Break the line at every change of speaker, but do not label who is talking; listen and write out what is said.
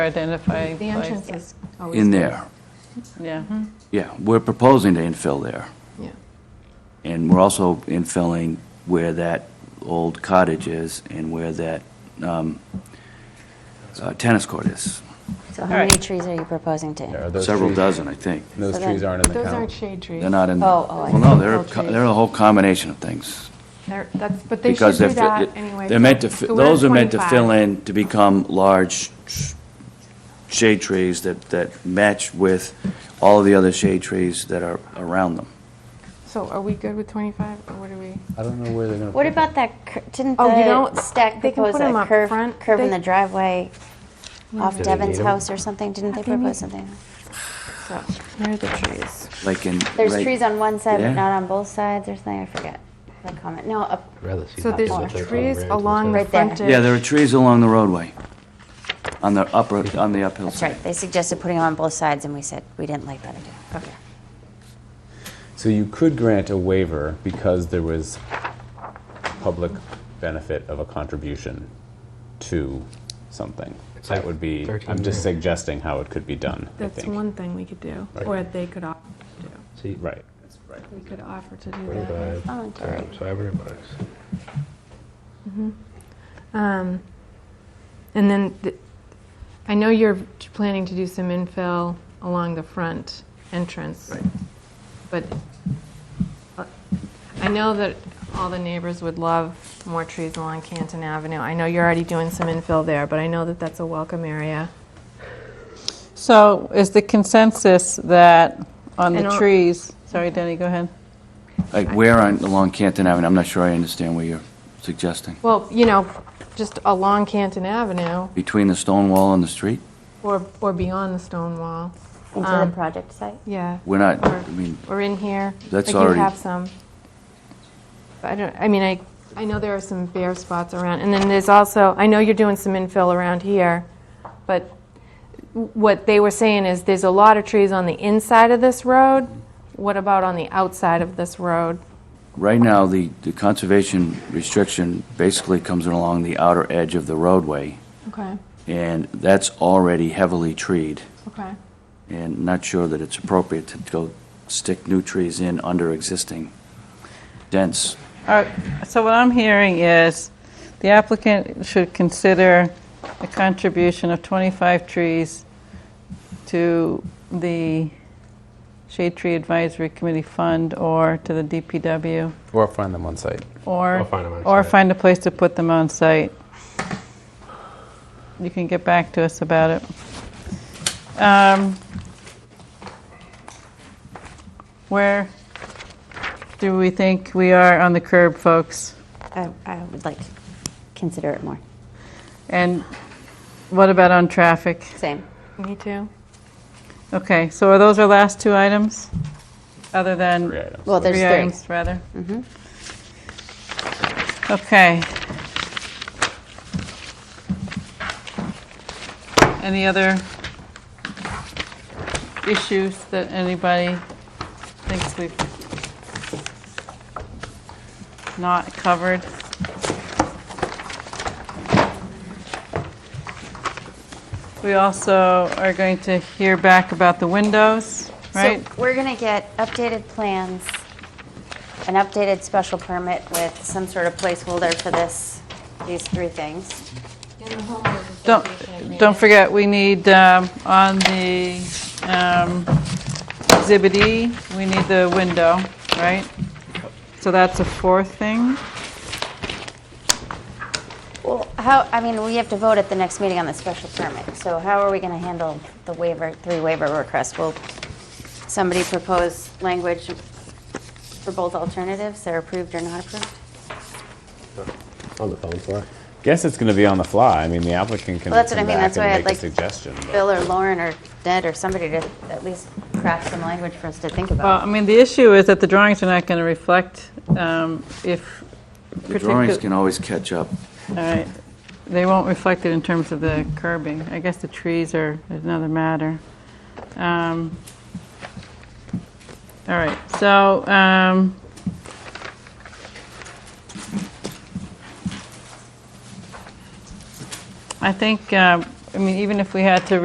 Identifying
The
place,
entrance Mm-hmm. is always.
in there.
yeah.
Yeah, we're proposing to infill there.
Yeah.
And we're also infilling where that old cottage is and where that um, uh, tennis court is.
So
All
how
right.
many trees are you proposing to?
Are those
Several
trees-
dozen, I think.
Those
So
trees
then-
aren't in the
Those aren't
count.
shade trees.
They're not in,
Oh, oh, I
well, no,
see.
they're, a co- they're a whole combination of things.
They're- That's, but they should
because
do
they're, fi-
that anyway.
they're meant to, fi-
So we're at
those are meant to
25.
fill in to become large sh- shade trees that, that match with all the other shade trees that are around them.
So are we good with 25, or what are we?
I don't know where they're going to.
What about that, cur- didn't
Oh, you don't-
the stack
they can
propose
put 'em
a
up
curve,
front.
curve in
They-
the driveway off
they
Devin's
need 'em?
house or something? Didn't they
think they
propose
need-
something?
So, here are the trees.
Like in.
There's
right-
trees on one side,
there.
but not on both sides or something, I forget the comment. No, up,
Rather see
So
that
more.
there's
they're
trees
unrated
along the
Right there.
frontage.
Yeah, there are trees along the roadway, on the upper, on the uphill
that's
side.
right, they suggested putting them on both sides and we said we didn't like that idea.
Okay.
So you could grant a waiver because there was public benefit of a contribution to something. That would be, I'm just suggesting how it could be done, I
That's
think.
one thing we could do,
Okay.
or they could offer to do.
Right.
We could offer to do that.
Twenty-five
Voluntary.
times five hundred bucks.
Um, And then, the- I know you're planning to do some infill along the front entrance. But uh, I know that all the neighbors would love more trees along Canton Avenue. I know you're already doing some infill there, but I know that that's a welcome area.
So is the consensus that on
And Mm-hmm.
the
on-
trees, sorry, Denny, go ahead.
Like where on, along Canton Avenue, I'm not sure I understand what you're suggesting.
Well, you know, just along Canton Avenue
Between the stone wall and the street?
or, or beyond the stone wall.
Into
Um,
the project site?
Yeah.
We're not,
Or-
I mean,
or in here.
That's
like
already-
You have some. But I don't, I mean, I, I know there are some bare spots around, and then there's also, I know you're doing some infill around here, but what they were saying is there's a lot of trees on the inside of this road. What about on the outside of this road?
right now, the, the conservation restriction basically comes along the outer edge of the roadway,
Okay,
and that's already heavily treed,
okay.
and not sure that it's appropriate to go stick new trees in under existing dense.
All right, so what I'm hearing is the applicant should consider a contribution of 25 trees to the Shade Tree Advisory Committee Fund or to the DPW,
Or find them on site.
or...
Or find 'em on
Or
site.
find a place to put them on site. You can get back to us about it. Um, Where do we think we are on the curb, folks?
I, I would like to consider it more.
And what about on traffic?
Same.
Me too.
Okay, so are those our last two items? Other than?
Three items.
Well, there's
Three
three. Mm-hmm.
items, rather? Okay. Any other issues that anybody thinks we've not covered? We also are going to hear back about the windows, right?
So we're going to get updated plans, an updated special permit with some sort of placeholder for this, these three things.
Don't, don't forget, we need, um, on the um, Exhibit E, we need the window, right? So that's a fourth thing?
Well, how, I mean, we have to vote at the next meeting on the special permit, so how are we going to handle the waiver, three waiver requests? Will somebody propose language for both alternatives, they're approved or not approved?
On the phone for it.
Guess it's going to be on the fly. I mean, the applicant can
Well, that's what I
come
mean.
back
That's why I'd
and make a
like
suggestion. but-
Bill or Lauren or Ned or somebody to at least craft some language for us to think
Well,
about.
I mean, the issue is that the drawings are not going to reflect um, if.
The drawings
particu-
can always catch up.
All right, they won't reflect it in terms of the curbing. I guess the trees are another matter. Um, All right, so, um, I think um, I mean, even if we had to